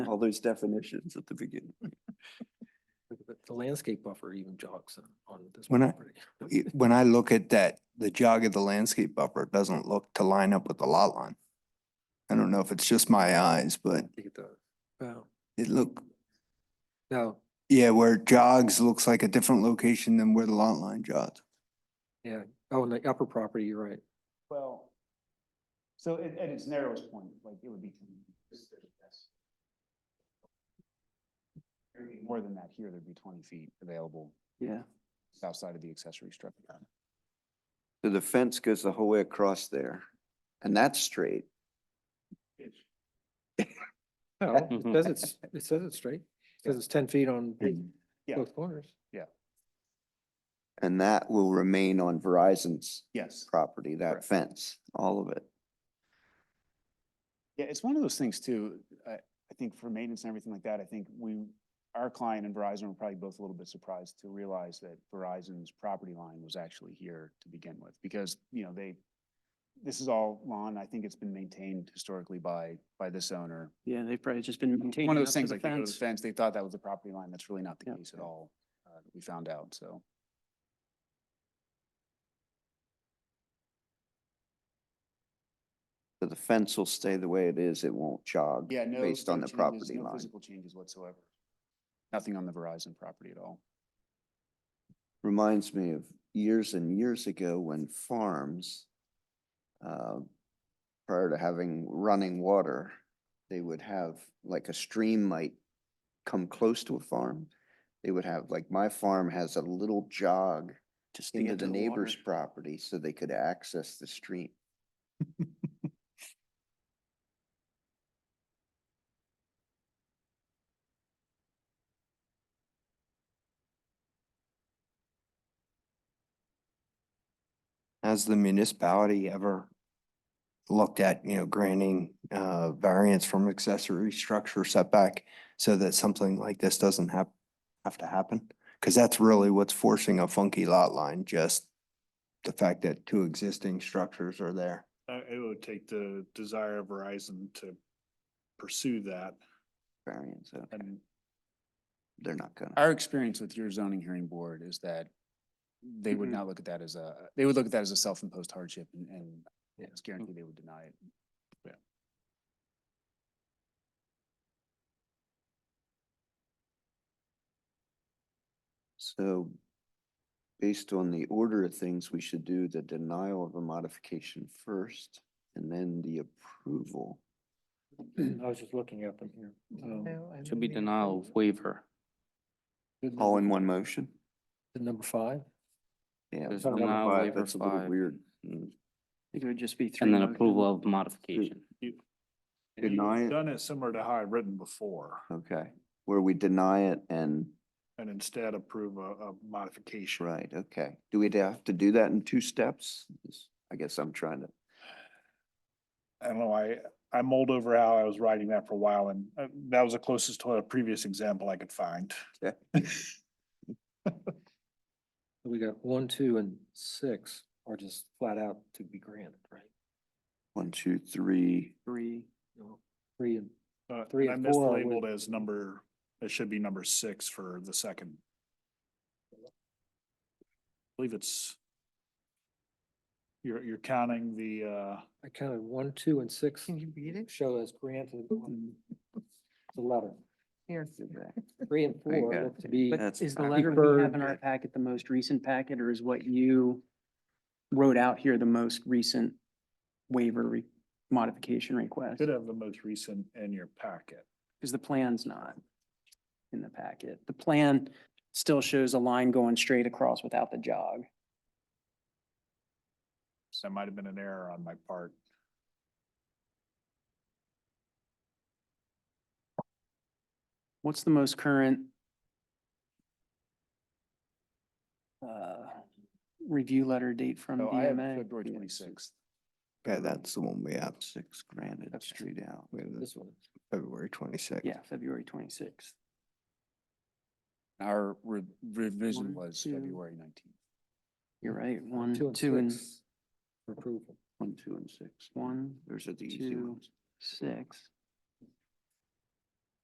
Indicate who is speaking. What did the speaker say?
Speaker 1: all those definitions at the beginning.
Speaker 2: The- The landscape buffer even jogs on- on this
Speaker 1: When I-
Speaker 2: property.
Speaker 1: it- when I look at that, the jog of the landscape buffer doesn't look to line up with the lot line. I don't know if it's just my eyes, but
Speaker 2: Look at the- Wow.
Speaker 1: it look,
Speaker 2: Now,
Speaker 1: yeah, where it jogs looks like a different location than where the lot line jogs.
Speaker 2: yeah, oh, and the upper property, you're right.
Speaker 3: Well, so at, at its narrowest point, like it would be. 10 meters. There'd be More than that here, there'd be twenty feet available
Speaker 1: Yeah.
Speaker 3: outside of the accessory structure.
Speaker 4: So the fence goes the whole way across there, and that's straight.
Speaker 2: No, it says it's, it says it's straight. It says it's ten feet on
Speaker 3: Yeah.
Speaker 2: both corners.
Speaker 4: And that will remain on Verizon's
Speaker 3: Yes.
Speaker 4: property, that
Speaker 3: Correct.
Speaker 4: fence, all of it.
Speaker 3: Yeah, it's one of those things too, I, I think for maintenance and everything like that, I think we, our client and Verizon were probably both a little bit surprised to realize that Verizon's property line was actually here to begin with, because, you know, they, this is all lawn, I think it's been maintained historically by, by this owner.
Speaker 5: Yeah, they've probably just been maintaining
Speaker 3: One of
Speaker 5: up
Speaker 3: those
Speaker 5: to
Speaker 3: things,
Speaker 5: the
Speaker 3: like they go to the
Speaker 5: fence.
Speaker 3: fence, they thought that was the property line, that's really not the
Speaker 5: Yep.
Speaker 3: case at all, uh, that we found out, so.
Speaker 4: So the fence will stay the way it is, it won't jog.
Speaker 3: Yeah, no.
Speaker 4: Based on
Speaker 3: no
Speaker 4: the
Speaker 3: changes,
Speaker 4: property
Speaker 3: no
Speaker 4: line.
Speaker 3: Physical changes whatsoever. Nothing on the Verizon property at all.
Speaker 4: Reminds me of years and years ago when farms, uh, prior to having running water, they would have, like a stream might come close to a farm. They would have, like my farm has a little jog
Speaker 5: Just to
Speaker 4: into
Speaker 5: get
Speaker 4: the
Speaker 5: to
Speaker 4: neighbor's
Speaker 5: water.
Speaker 4: property so they could access the stream.
Speaker 1: Has the municipality ever looked at, you know, granting uh variance from accessory structure setback so that something like this doesn't have, have to happen? Because that's really what's forcing a funky lot line, just the fact that two existing structures are there.
Speaker 6: Uh, it would take the desire of Verizon to pursue that
Speaker 4: Variance, so
Speaker 3: And
Speaker 4: they're not gonna.
Speaker 3: our experience with your zoning hearing board is that they would
Speaker 5: Mhm.
Speaker 3: not look at that as a, they would look at that as a self-imposed hardship and, and
Speaker 2: Yeah.
Speaker 3: it's guaranteed they would deny it.
Speaker 4: So based on the order of things, we should do the denial of a modification first and then the approval.
Speaker 2: I was just looking at them here.
Speaker 5: Oh.
Speaker 2: Um,
Speaker 5: Should be denial of waiver.
Speaker 2: good
Speaker 4: All in
Speaker 2: number-
Speaker 4: one motion?
Speaker 2: Number five,
Speaker 4: Yeah.
Speaker 5: There's
Speaker 4: number
Speaker 5: denial,
Speaker 4: five,
Speaker 5: waiver
Speaker 4: That's a little
Speaker 5: five.
Speaker 4: weird. Mm.
Speaker 5: It would just be three.
Speaker 7: And then
Speaker 5: motions.
Speaker 7: approval of modification.
Speaker 6: And you've
Speaker 4: Deny it.
Speaker 6: Done it similar to how I've written before,
Speaker 4: Okay, where we deny it and,
Speaker 6: and instead approve a, a modification.
Speaker 4: right, okay. Do we have to do that in two steps? Is- I guess I'm trying to,
Speaker 6: I don't know, I, I mulled over how I was writing that for a while, and uh, that was the closest to a previous example I could find.
Speaker 2: we got one, two, and six are just flat out to be granted, right?
Speaker 4: one, two, three,
Speaker 5: Three.
Speaker 2: No, Three and
Speaker 6: Uh,
Speaker 2: Three
Speaker 6: I
Speaker 2: and four would-
Speaker 6: mislabeled as number, it should be number six for the second. I Believe it's you're, you're counting the, uh,
Speaker 2: I counted one, two, and six
Speaker 5: you read
Speaker 2: show as granted on the letter.
Speaker 5: Here.
Speaker 2: Three and
Speaker 4: There you
Speaker 2: four
Speaker 4: go.
Speaker 2: look to be,
Speaker 5: But
Speaker 4: That's
Speaker 5: is the
Speaker 4: fine.
Speaker 5: letter we have in
Speaker 2: Preferred.
Speaker 5: our packet the most recent packet, or is what you wrote out here the most recent waiver re- modification request?
Speaker 6: should have the most recent in your packet.
Speaker 5: Because the plan's not in the packet. The plan still shows a line going straight across without the jog.
Speaker 6: So that might have been an error on my part.
Speaker 5: What's the most current uh, review letter date from
Speaker 3: So I have
Speaker 5: DMA?
Speaker 3: February
Speaker 5: Yeah.
Speaker 3: twenty-sixth.
Speaker 1: Okay, that's the one we have.
Speaker 4: six granted,
Speaker 5: Okay.
Speaker 4: street out.
Speaker 1: We have
Speaker 2: this
Speaker 1: this
Speaker 2: one.
Speaker 1: February twenty-sixth.
Speaker 5: Yeah, February twenty-sixth.
Speaker 3: Our re- revision
Speaker 5: One,
Speaker 3: was
Speaker 5: two.
Speaker 3: February nineteenth.
Speaker 5: You're right, one,
Speaker 2: two and
Speaker 5: two and
Speaker 2: six for approval.
Speaker 4: One, two, and six.
Speaker 5: one,
Speaker 4: Those are the easy
Speaker 5: two,
Speaker 4: ones.
Speaker 5: six.